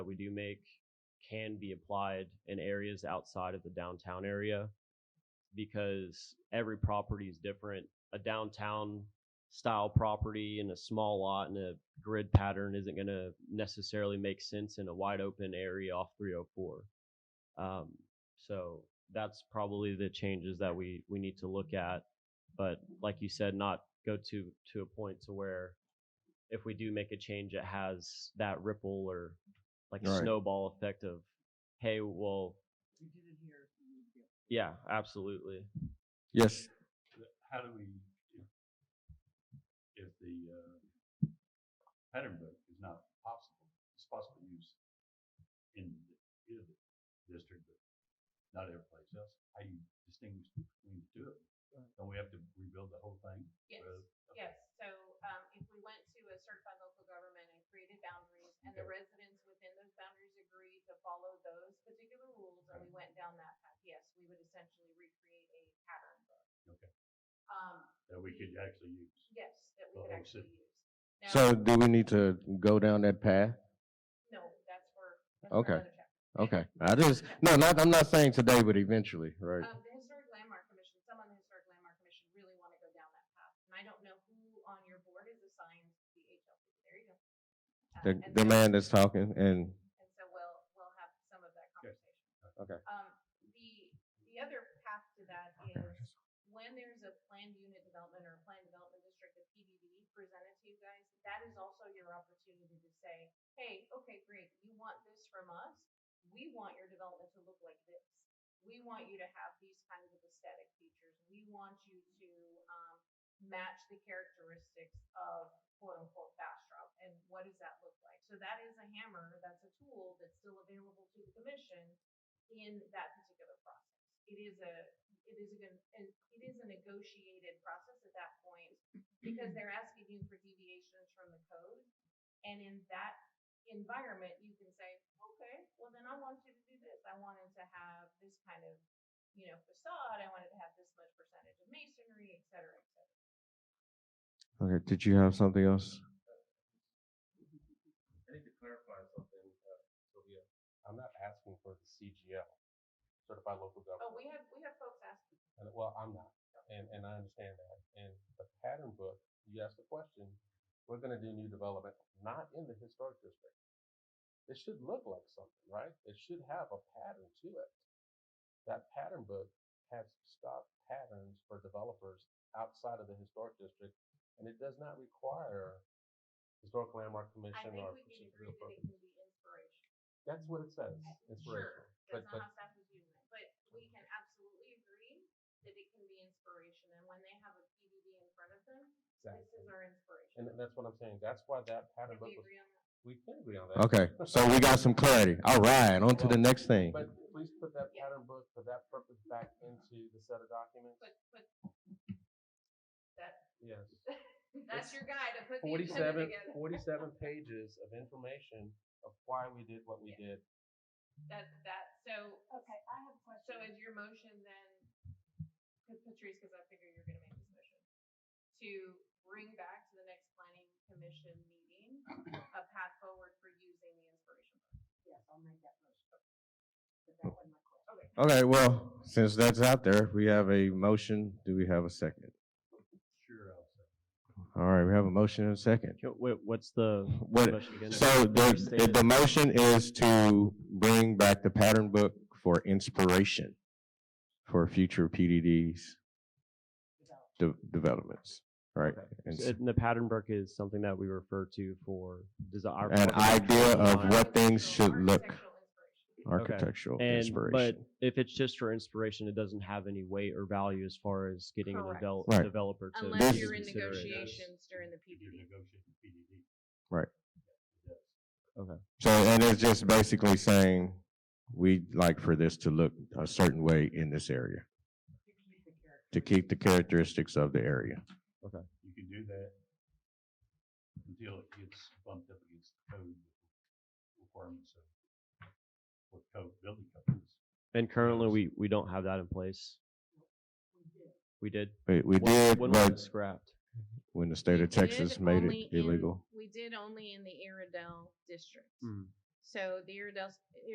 we do make can be applied in areas outside of the downtown area because every property is different. A downtown style property in a small lot and a grid pattern isn't going to necessarily make sense in a wide open area off 304. Um, so that's probably the changes that we we need to look at. But like you said, not go to to a point to where if we do make a change, it has that ripple or like Right. snowball effect of, hey, well, We did it here. we need to do it. yeah, absolutely. Yes, how do we, if, if the, uh, pattern book is not possible, it's possible use in the, either the district, but not every place else, how you distinguish between the two of them? Don't we have to rebuild the whole thing? Yes, Well, okay. yes, so, um, if we went to a certified local government and created boundaries, and the residents within those boundaries agreed to follow those particular rules, and we went down that path, yes, we would essentially recreate a pattern book. Okay. Um, That we could actually use? yes, that we The whole could actually city. use. Now- so do we need to go down that path? No, that's for, that's for Okay. another chapter. Okay, I just, no, not, I'm not saying today, but eventually, right? Um, the Historic Landmark Commission, some on the Historic Landmark Commission really want to go down that path. And I don't know who on your board is assigned to the HLC. There you go. Uh, The, and the so- man that's talking and, And so we'll, we'll have some of that Good. conversation. Okay. Um, the, the other path to that is when there's a planned unit development or a planned development district, a PDD presented to you guys, that is also your opportunity to say, hey, okay, great, you want this from us? We want your development to look like this. We want you to have these kinds of aesthetic features. We want you to, um, match the characteristics of quote unquote fast route and what does that look like? So that is a hammer, that's a tool that's still available to the commission in that particular process. It is a, it is a, gon- and it is a negotiated process at that point because they're asking you for deviations from the code. And in that environment, you can say, okay, well then I want you to do this. I wanted to have this kind of, you know, facade. I wanted to have this much percentage of masonry, et cetera, et cetera. okay, did you have something else? I need to clarify something, uh, Sylvia. I'm not asking for the CGL, Certified Local Oh, Government. we have, we have folks asking. And, well, I'm not, and, and I understand that. And the pattern book, you asked the question, we're gonna do new development, not in the historic district. It should look like something, right? It should have a pattern to it. That pattern book has stock patterns for developers outside of the historic district, and it does not require historic landmark I commission think or. we can Chief agree Real that Property. it can be inspiration. That's what it says. Sure, Inspirational. But, that's but, not how staff is using it, but we can absolutely agree that it can be inspiration, and when they have a PDD in front of them, this exactly. is our inspiration. And th- that's what I'm saying. That's why that pattern Can book we was, agree on that? we can agree on that. Okay, so we got some clarity. All right, on to the next thing. But please put that Yeah. pattern book for that purpose back into the set of documents. Put, put, that, Yes. that's your guy to put the agenda Forty-seven, together. forty-seven pages of information of why we did what we did. That, that, so, Okay, I have a question. so is your motion then, Pat- Patrice, because I figure you're gonna make this motion, to bring back to the next planning commission meeting a path forward for using the inspiration book? Yes, I'll make that motion. But that wasn't my question. Okay. Okay, well, since that's out there, we have a motion. Do we have a second? Sure, I'll say. All right, we have a motion and a second. Yo, wait, What's the What, motion again? so Can you the, state the- it? the motion is to bring back the pattern book for inspiration for future PDDs Develop. de- developments, right? Okay. And So, s- And the pattern book is something that we refer to for desire. An idea of what things should look architectural Architectural inspiration. And, but inspiration. if it's just for inspiration, it doesn't have any weight or value as far as getting a Correct. devel- Right. developer to. This- Unless you're in consider it. negotiations during the If you're PDD. negotiating PDD. Right. Yes. So, and it's just basically saying, we'd like for this to look a certain way in this area, To keep the character. to keep the characteristics of the area. You can do that until it gets bumped up against the code requirements of what code, building code is. And currently, we, we don't have that in place. We did. We did. We, we When- did, When was it but scrapped? when the state We of did Texas made only it in- illegal. Hmm. We did only in the Iredell district. So the Iredale,